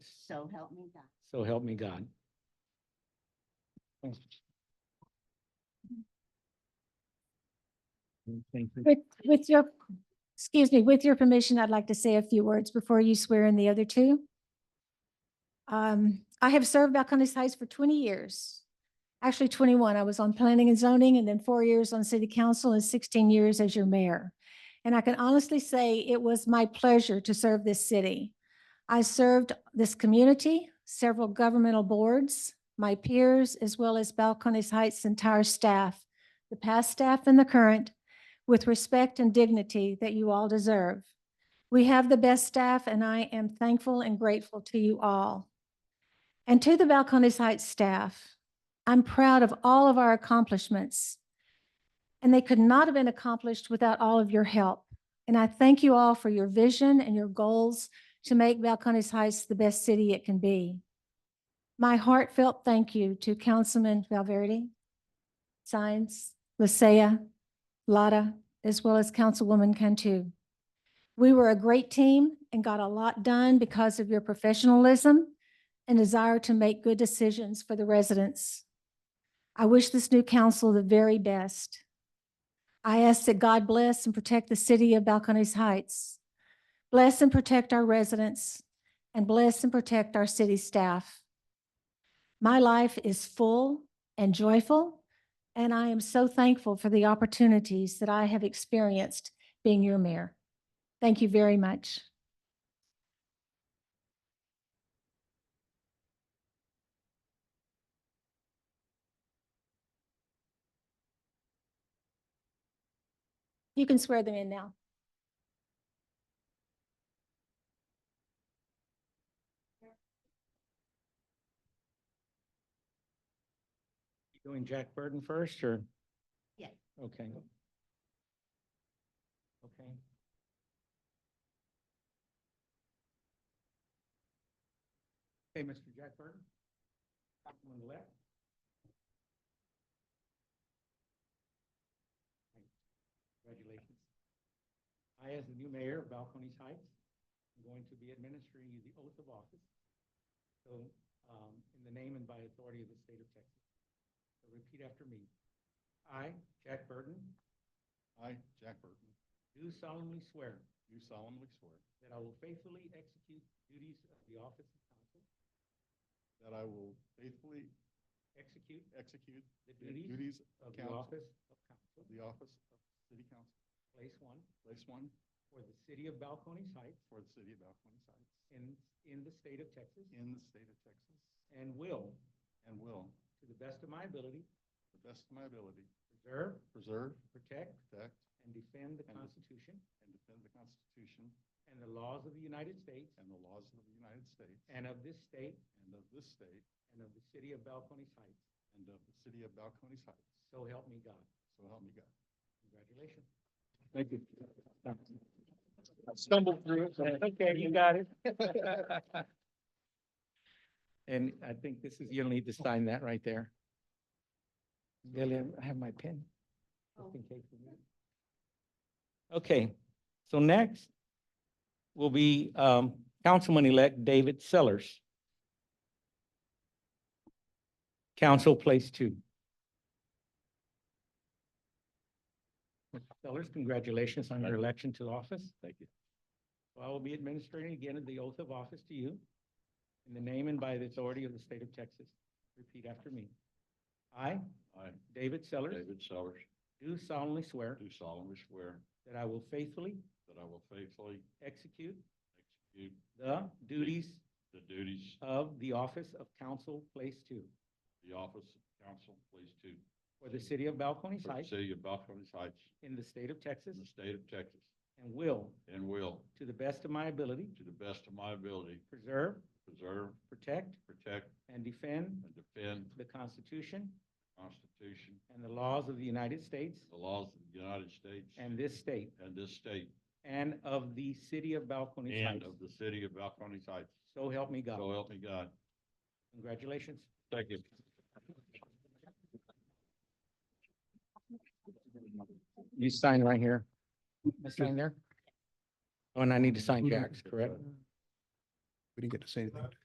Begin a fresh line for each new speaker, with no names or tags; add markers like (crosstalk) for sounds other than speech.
So help me God.
So help me God. Thanks. Thank you.
With, with your, excuse me, with your permission, I'd like to say a few words before you swear in the other two. Um, I have served Balcony's Heights for twenty years. Actually twenty-one. I was on planning and zoning and then four years on city council and sixteen years as your mayor. And I can honestly say it was my pleasure to serve this city. I served this community, several governmental boards, my peers, as well as Balcony's Heights' entire staff, the past staff and the current, with respect and dignity that you all deserve. We have the best staff, and I am thankful and grateful to you all. And to the Balcones Heights staff, I'm proud of all of our accomplishments. And they could not have been accomplished without all of your help. And I thank you all for your vision and your goals to make Balcones Heights the best city it can be. My heartfelt thank you to Councilman Valverde, Sines, Lisea, Lada, as well as Councilwoman Cantu. We were a great team and got a lot done because of your professionalism and desire to make good decisions for the residents. I wish this new council the very best. I ask that God bless and protect the city of Balcones Heights. Bless and protect our residents and bless and protect our city staff. My life is full and joyful and I am so thankful for the opportunities that I have experienced being your mayor. Thank you very much. You can swear them in now.
Doing Jack Burton first, or?
Yeah.
Okay. Okay. Okay, Mr. Jack Burton. Top one on the left. Congratulations. I, as the new mayor of Balcony's Heights, am going to be administering you the oath of office. So, um, in the name and by authority of the state of Texas. So Repeat after me. I, Jack Burton,
I, Jack Burton,
do solemnly swear
do solemnly swear
that I will faithfully execute the duties of the office of council,
that I will faithfully
execute
execute
the
the
duties
duties
of the
council-
office of
of
council,
the office of City Council,
place one,
Place One,
for the city of Balcones Heights
for the city of Balcony's Heights,
in, in the state of Texas,
in the state of Texas,
and will,
and will, to
to the best of my ability,
the best of my ability,
preserve,
preserve,
protect,
protect,
and defend the
And-
Constitution
and defend the Constitution
and the laws of the United States
and the laws of the United States
and of this state
and of this state
and of the city of Balcones Heights.
and of the city of Balcony's Heights.
So help me God.
So help me God.
Congratulations. Thank you. Stumbled through it, but okay, you got it. (laughs) And I think this is, you'll need to sign that right there. Lillian, I have my pen. just in case we need it. Okay, so next will be um, Councilman-elect David Sellers. Council Place Two. Mr. Sellers, congratulations on your election to office. Thank you. I will be administering again the oath of office to you in the name and by the authority of the state of Texas. Repeat after me. I,
I,
David Sellers,
Sellers,
do solemnly swear
solemnly swear
that I will faithfully
that I will faithfully
execute
execute
the duties
the duties
of the office of council place two
the office of council, Place Two,
for the city of Balcones
for the
Heights
city of Balcony's Heights
in the state of Texas
in the state of Texas,
and will,
and will,
to the best of my ability,
to the best of my ability,
preserve,
preserve,
protect,
protect,
and defend
and defend
the Constitution
the Constitution,
and the laws of the United States
the laws of the United States
and this state
and this state,
and of the city of Balcones
and
Heights.
of the city of Balcony's Heights.
So help me
So
God.
help me God.
Congratulations.
Thank you.
You sign right here. I sign there? Oh, and I need to sign Jack's, correct?
We didn't get to say anything.